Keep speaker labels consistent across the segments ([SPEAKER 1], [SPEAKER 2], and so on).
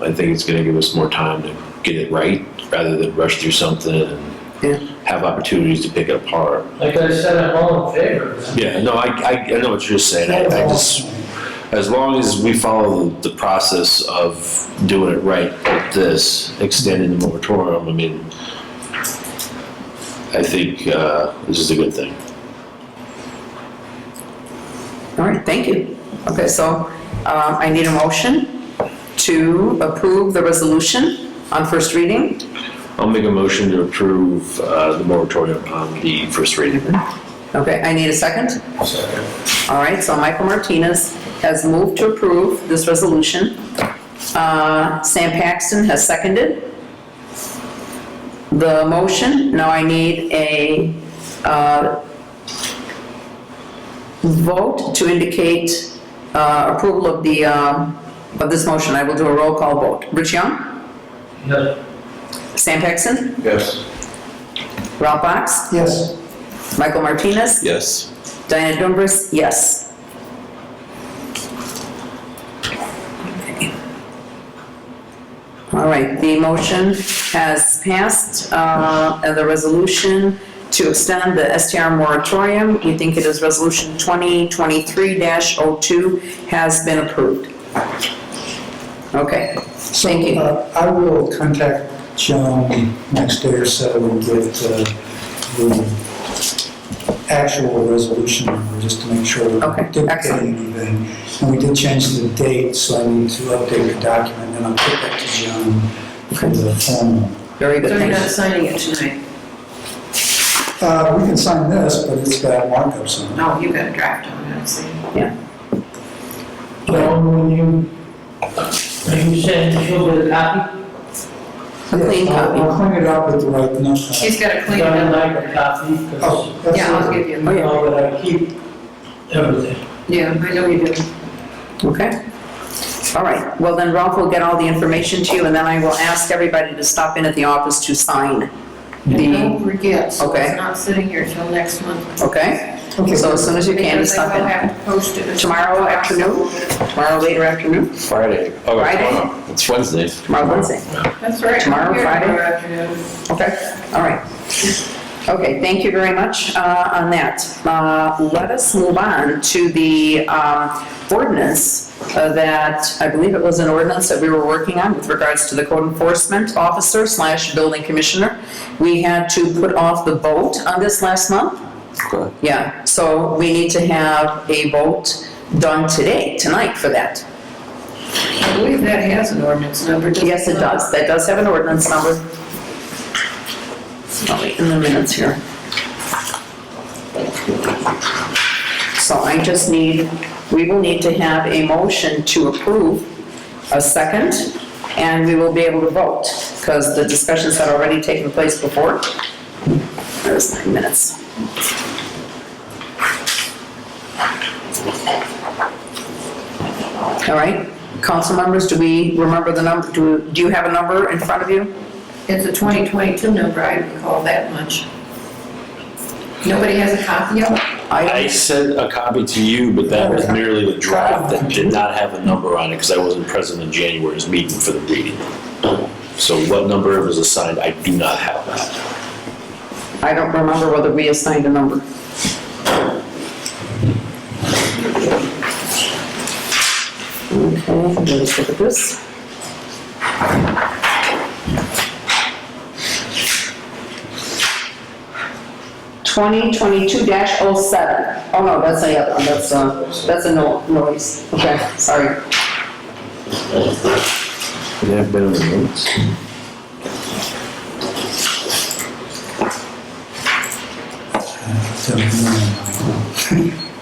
[SPEAKER 1] I think it's gonna give us more time to get it right, rather than rush through something
[SPEAKER 2] Yeah.
[SPEAKER 1] and have opportunities to pick it apart.
[SPEAKER 3] Like I said, I'm all in favor. of that.
[SPEAKER 1] Yeah, no, I, I, I know what you're saying, I, I just, as long as we follow the process of doing it right, like this, extending the moratorium, I mean, I think, uh, this is a good thing.
[SPEAKER 2] All right, thank you. Okay, so um, I need a motion to approve the resolution on first reading.
[SPEAKER 1] I'll make a motion to approve, uh, the moratorium on the first reading.
[SPEAKER 2] Okay, I need a second. All right, so Michael Martinez has moved to approve this resolution. Uh, Sam Paxton has seconded the motion. Now I need a uh, vote to indicate uh, approval of the, um, of this motion. I will do a roll call vote. Rich Young?
[SPEAKER 3] No,
[SPEAKER 2] Sam Paxton?
[SPEAKER 4] Yes.
[SPEAKER 2] Ralph Box?
[SPEAKER 4] Yes.
[SPEAKER 2] Michael Martinez?
[SPEAKER 1] Yes.
[SPEAKER 2] Diana Dumbriz, yes. All right, the motion has passed, uh, and the resolution to extend the STR moratorium, we think it is Resolution 2023-02, has been approved. Okay,
[SPEAKER 4] So
[SPEAKER 2] Thank you.
[SPEAKER 4] uh, I will contact Joan next day or so with uh, the actual resolution number, just to make sure. we're
[SPEAKER 2] Okay,
[SPEAKER 4] duplicating
[SPEAKER 2] excellent.
[SPEAKER 4] anything. And we did change the date, so I need to update the document, and I'll put that to Joan for the formal.
[SPEAKER 2] very good,
[SPEAKER 5] So you're
[SPEAKER 2] thank
[SPEAKER 5] not
[SPEAKER 2] you.
[SPEAKER 5] signing it tonight?
[SPEAKER 4] Uh, We can sign this, but it's got markups on it.
[SPEAKER 5] No, you got a draft on it, I see.
[SPEAKER 3] Joan, when you, are you saying she'll get a copy?
[SPEAKER 2] A clean
[SPEAKER 4] Yeah, I'll- I'll
[SPEAKER 2] copy.
[SPEAKER 4] clean it up with the right number.
[SPEAKER 5] She's got to clean it
[SPEAKER 3] I'd
[SPEAKER 5] up.
[SPEAKER 3] like a copy, because
[SPEAKER 4] Oh, that's
[SPEAKER 5] Yeah, I'll
[SPEAKER 4] it.
[SPEAKER 5] give you,
[SPEAKER 2] Oh, yeah.
[SPEAKER 3] all that I keep, everything.
[SPEAKER 5] yeah, I know you do.
[SPEAKER 2] Okay. All right, well then Ralph will get all the information to you, and then I will ask everybody to stop in at the office to sign the,
[SPEAKER 5] Don't forget, so
[SPEAKER 2] Okay.
[SPEAKER 5] it's not sitting here till next month.
[SPEAKER 2] okay?
[SPEAKER 4] Okay.
[SPEAKER 2] So as soon as you can, just
[SPEAKER 5] Because I
[SPEAKER 2] stop
[SPEAKER 5] will
[SPEAKER 2] in.
[SPEAKER 5] have to post it. Oh, as-
[SPEAKER 2] Tomorrow afternoon, tomorrow later afternoon,
[SPEAKER 1] Friday. Oh,
[SPEAKER 2] Friday?
[SPEAKER 1] tomorrow. It's Wednesday.
[SPEAKER 2] tomorrow Wednesday.
[SPEAKER 5] That's right.
[SPEAKER 2] Tomorrow,
[SPEAKER 5] Here,
[SPEAKER 2] Friday?
[SPEAKER 5] Tomorrow afternoon.
[SPEAKER 2] Okay, all right. Okay, thank you very much uh, on that. Uh, Let us move on to the um, ordinance uh, that, I believe it was an ordinance that we were working on with regards to the code enforcement officer slash building commissioner. We had to put off the vote on this last month. Yeah, so we need to have a vote done today, tonight for that.
[SPEAKER 5] I believe that has an ordinance number. doesn't
[SPEAKER 2] Yes, it does, that does have an ordinance number. I'll wait in the minutes here. So I just need, we will need to have a motion to approve a second, and we will be able to vote, because the discussions had already taken place before. There's nine minutes. All right, council members, do we remember the number, do, do you have a number in front of you?
[SPEAKER 5] It's a 2022 number, I recall that much. Nobody has a copy of it?
[SPEAKER 1] I sent a copy to you, but that was merely the draft that did not have a number on it because I wasn't present in January's meeting for the reading. So what number was assigned, I do not have that.
[SPEAKER 2] I don't remember whether we assigned a number. Okay, let's look at this. Twenty twenty-two dash oh seven. Oh, no, that's the other one, that's, uh, that's a no, noise. Okay, sorry.
[SPEAKER 1] Could have been in the notes.
[SPEAKER 4] So,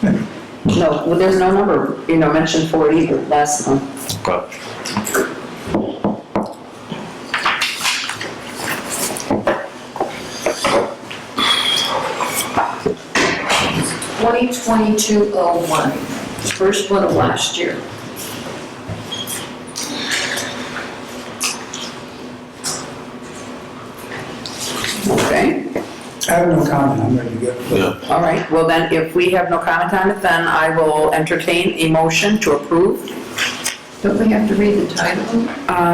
[SPEAKER 4] um,
[SPEAKER 2] No, well, there's no number, you know, mentioned for it either last month.
[SPEAKER 1] Okay.
[SPEAKER 5] Twenty twenty-two oh one, first one of last year.
[SPEAKER 2] Okay.
[SPEAKER 4] I have no comment, I'm ready to go.
[SPEAKER 1] Yeah.
[SPEAKER 2] All right, well then, if we have no comment on it, then I will entertain a motion to approve.
[SPEAKER 5] Don't we have to read the title?